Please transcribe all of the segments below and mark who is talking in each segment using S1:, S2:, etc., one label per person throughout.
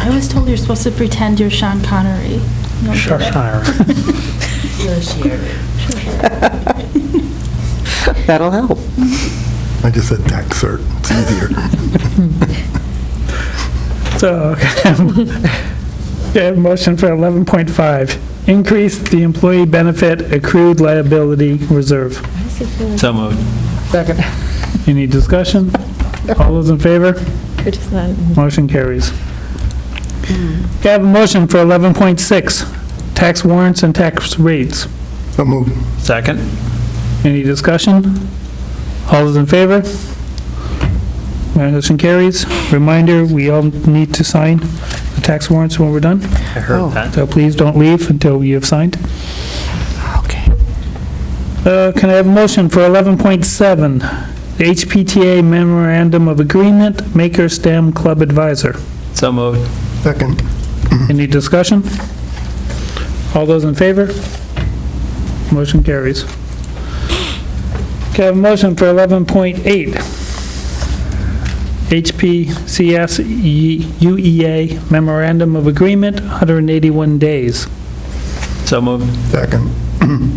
S1: I was told you're supposed to pretend you're Sean Connery. You don't do
S2: Sure.
S1: that.
S3: That'll help.
S4: I just said tax cert, it's easier.
S2: So, okay, motion for 11.5, increase the employee benefit accrued liability reserve.
S5: So moved.
S3: Second.
S2: Any discussion? All those in favor?
S6: We're just not-
S2: Motion carries. Okay, I have a motion for 11.6, tax warrants and tax rates.
S4: So moved.
S5: Second?
S2: Any discussion? All those in favor? Motion carries. Reminder, we all need to sign the tax warrants when we're done,
S5: I
S3: Oh.
S5: heard that.
S2: so please don't leave until you have signed.
S3: Okay.
S2: Uh, Can I have a motion for 11.7, the HPTA Memorandum of Agreement, Maker STEM Club Advisor?
S5: So moved.
S4: Second,
S2: Any discussion? All those in favor? Motion carries. Okay, I have a motion for 11.8, HPCS UEA E Memorandum of Agreement, 181 days.
S5: So moved.
S4: second,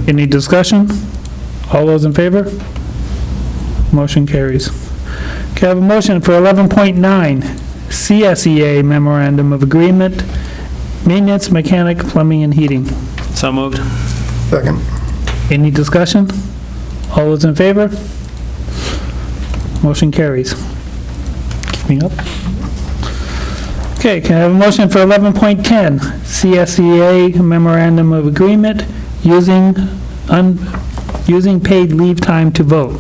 S2: Any discussion? All those in favor? Motion carries. Okay, I have a motion for 11.9, CSEA E Memorandum of Agreement, Maintenance, Mechanic, Plumbing, and Heating.
S5: So moved.
S4: second,
S2: Any discussion? All those in favor? Motion carries. Keeping up. Okay, can I have a motion for 11.10, CSEA E Memorandum of Agreement, using, un, using paid leave time to vote?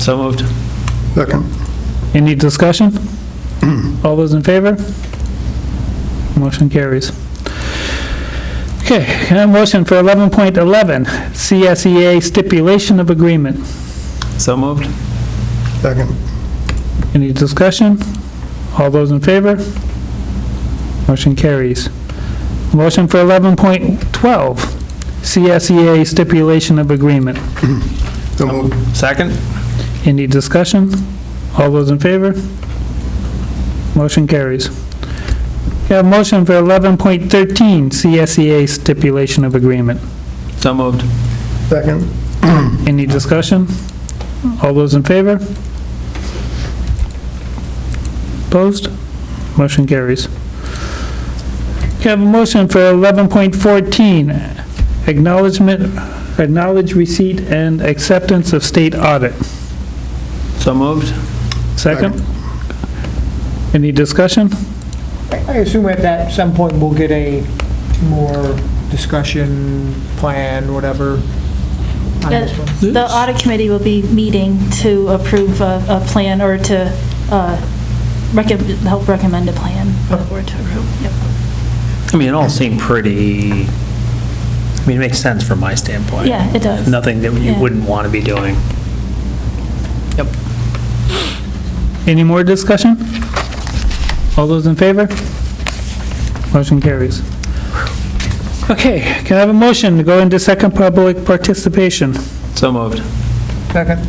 S5: So moved.
S4: second,
S2: Any discussion? All those in favor? Motion carries. Okay, can I have a motion for 11.11, CSEA E Stipulation of Agreement?
S5: So moved.
S4: second,
S2: Any discussion? All those in favor? Motion carries. Motion for 11.12, CSEA E stipulation of agreement.
S4: so moved.
S5: Second?
S2: Any discussion? All those in favor? Motion carries. We have motion for 11.13, CSEA E stipulation of agreement.
S5: So moved.
S4: Second,
S2: Any discussion? All those in favor? Opposed? Motion carries. Can I have a motion for 11.14, acknowledgement, acknowledge receipt and acceptance of state audit.
S5: So moved.
S2: Second? Any discussion?
S7: I assume at that, some point, we'll get a more discussion plan, whatever, on
S1: Yeah.
S7: this one.
S1: The audit committee will be meeting to approve a, a plan or to, uh, recom help recommend a plan for the board to approve. Yep.
S5: I mean, it all seemed pretty, I mean, it makes sense from my standpoint.
S1: Yeah, it does.
S5: Nothing that you
S1: Yeah.
S5: wouldn't want to be doing. Yep.
S2: Any more discussion? All those in favor? Motion carries. Okay, can I have a motion to go into second public participation?
S5: So moved.
S7: Second,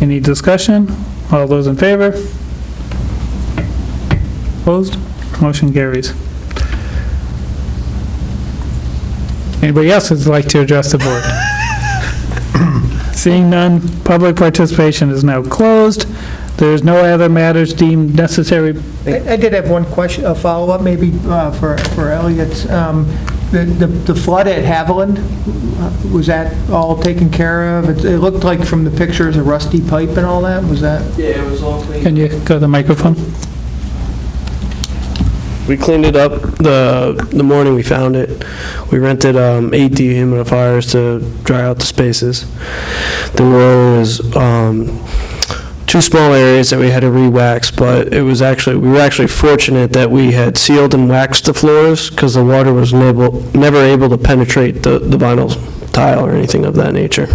S2: Any discussion? All those in favor? Opposed? Motion carries. Anybody else would like to address the board? Seeing none, public participation is now closed. There is no other matters deemed necessary
S7: I I did have one question, a follow-up maybe uh, for for Elliot. Um, The the flood at Haviland, uh, was that all taken care of? It it looked like from the pictures, a rusty pipe and all that, was that?
S8: Yeah, it was all clean.
S2: Can you go to the microphone?
S8: We cleaned it up the, the morning we found it. We rented um, eight dehumidifiers to dry out the spaces. There was um, two small areas that we had to re-wax, but it was actually, we were actually fortunate that we had sealed and waxed the floors because the water was never, never able to penetrate the the vinyl tile or anything of that nature.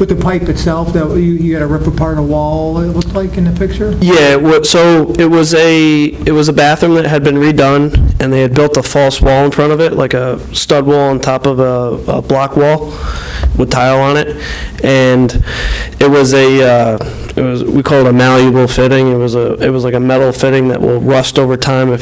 S7: With the pipe itself, that you you had to rip apart a wall, it looked like in the picture?
S8: Yeah, it wa- so it was a, it was a bathroom that had been redone, and they had built a false wall in front of it, like a stud wall on top of a, a block wall with tile on it. And it was a, uh, it was, we call it a malleable fitting, it was a, it was like a metal fitting that will rust over time if